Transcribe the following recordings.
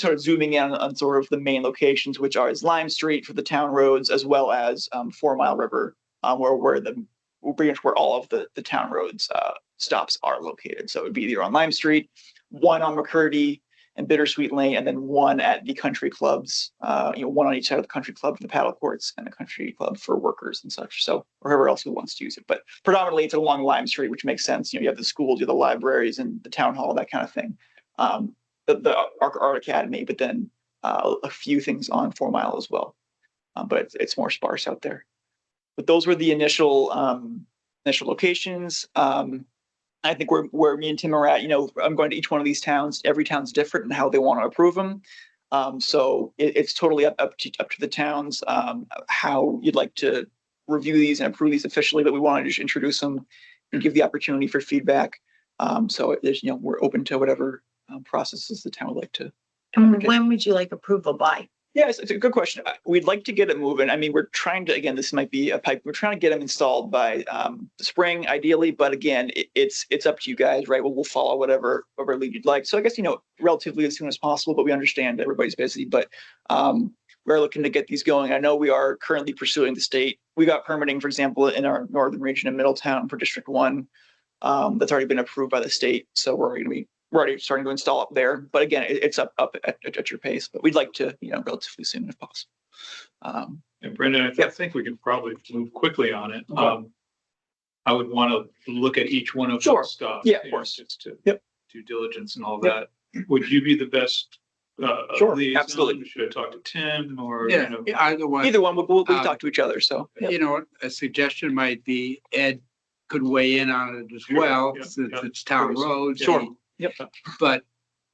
sort of zooming in on, on sort of the main locations, which are is Lime Street for the town roads, as well as um, Four Mile River, uh, where where the pretty much where all of the the town roads uh, stops are located. So it would be either on Lime Street, one on McCurdy and Bittersweet Lane, and then one at the country clubs. Uh, you know, one on each side of the country club for the paddle courts and the country club for workers and such. So or whoever else who wants to use it, but predominantly it's along Lime Street, which makes sense. You know, you have the schools, you have the libraries, and the town hall, that kind of thing. Um, the, the Art, Art Academy, but then uh, a few things on Four Mile as well. Um, but it's, it's more sparse out there. But those were the initial um, initial locations. Um, I think where where me and Tim are at, you know, I'm going to each one of these towns. Every town's different in how they want to approve them. Um, so it, it's totally up up to up to the towns um, how you'd like to review these and approve these officially. But we want to just introduce them and give the opportunity for feedback. Um, so there's you know we're open to whatever um, processes the town would like to And Okay. when would you like approval by? Yes, it's a good question. Uh, We'd like to get it moving. I mean, we're trying to, again, this might be a pipe. We're trying to get them installed by um the spring ideally, but again, it, it's it's up to you guys, right? We'll, we'll follow whatever whatever lead you'd like. So I guess, you know, relatively as soon as possible, but we understand everybody's busy, but um we're looking to get these going. I know we are currently pursuing the state. We got permitting, for example, in our northern region of Middletown for District One. Um, that's already been approved by the state, so we're gonna be we're already starting to install up there, but again, it, it's up, up at, at- at your pace, but we'd like to, you know, relatively soon if possible. Um, And Brendan, I th- I think we can probably move quickly on it. Okay. Um, I would want to look at each one of Sure. those stuff. Yeah, of you know, course. Just to Yep. due diligence and all that. Yep. Would you be the best? uh, Sure, liaison? absolutely. Should I talk to Tim or? you Yeah, know, either way, either one, we'll, we'll, we'll Um, talk to each other, so. you know, a suggestion might be Ed could weigh in on it as Sure, well, yeah, since yeah. it's town Sure, roads. sure. and- Yep. But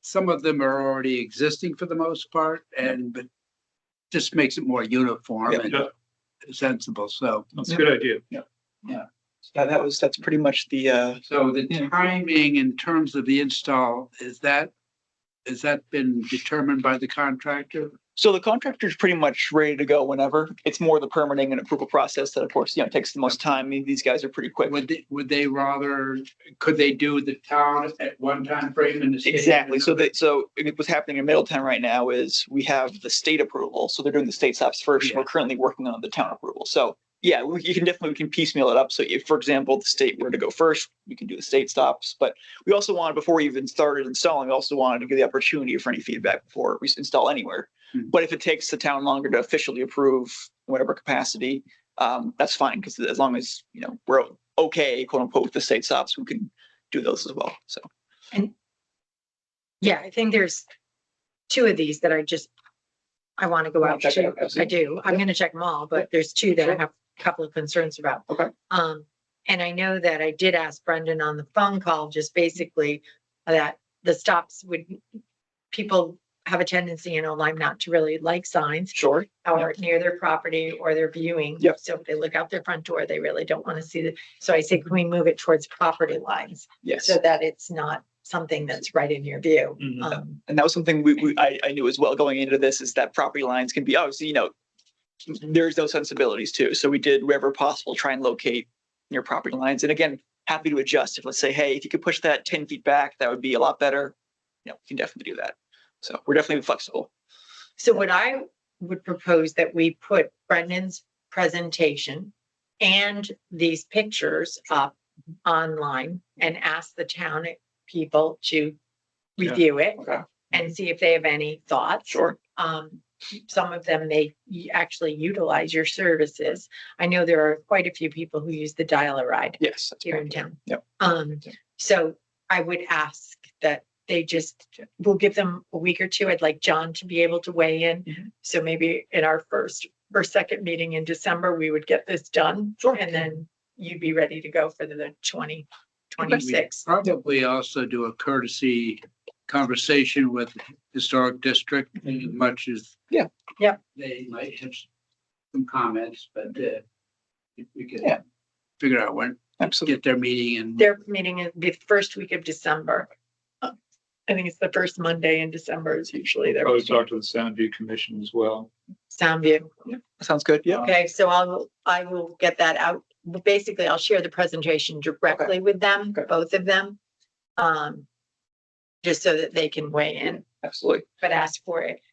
some of them are already existing for the most part and, but just makes it more uniform Yeah. and Yeah, sensible, so. That's a good idea. That, that was, that's pretty much the, uh, So the Yeah. timing in terms of the install, is that, has that been determined by the contractor? so the contractor's pretty much ready to go whenever. It's more the permitting and approval process that of course, you know, takes the most time. I mean, These guys are pretty quick. Would they, would they rather, could they do the town at one time frame and the state? at Exactly. So another? that, so it- what's happening in Middletown right now is we have the state approval. So they're doing the state stops first. Yeah. We're currently working on the town approval. So yeah, we- you can definitely, we can piecemeal it up. So if, for example, the state were to go first, we can do the state stops. But we also wanted, before we even started installing, we also wanted to give the opportunity for any feedback before we s- install anywhere. Hmm. But if it takes the town longer to officially approve in whatever capacity, um, that's fine. Cause as long as, you know, we're okay, quote unquote, with the state stops, we can do those as well. So. Yeah, I think there's two of these that I just, I want to go Wanna out check it to. out, absolutely. I do. I'm going to check them all, but there's two that I have a couple of concerns about. Okay. Um, and I know that I did ask Brendan on the phone call, just basically that the stops would, people have a tendency in Lime not to really like signs. Sure. or near their property or their viewing. Yep. So if they look out their front door, they really don't want to see the, so I say, can we move it towards property lines? Yes. So that it's not something that's right in your view. Mhm. Uh, Um, and that was something we, we I, I knew as well going into this is that property lines can be obviously you know there's those sensibilities too so we did wherever possible try and locate near property lines and again happy to adjust if let's say hey if you could push that 10 feet back that would be a lot better you know we can definitely do that so we're definitely flexible so what I would propose that we put Brendan's presentation and these pictures up online and ask the town people to Yeah. review it okay and see if they have any thoughts. sure um, some of them may y- actually utilize your services. I know there are quite a few people who use the dial a ride yes that's here in fine. town. Yep. Um, Yep. so I would ask that they just, we'll give them a week or two. I'd like John to be able to weigh in. Mhm. So maybe in our first or second meeting in December, we would get this done. Sure. And then you'd be ready to go for the twenty We twenty-six. Probably also do a courtesy conversation with historic district as Mhm. much as. Yeah. Yeah. They might have some comments, but uh, if we could Yeah. figure out when, absolutely get their meeting and. Their meeting is the first week of December. Uh, I think it's the first Monday in December is usually their. Probably meeting. talk to the Sound View Commission as well. Sound view. sounds good yeah Okay, so I'll, I will get that out. But Basically, I'll share the presentation directly with them, Okay. both of them. Um, just so that they can weigh in. absolutely. but ask for it.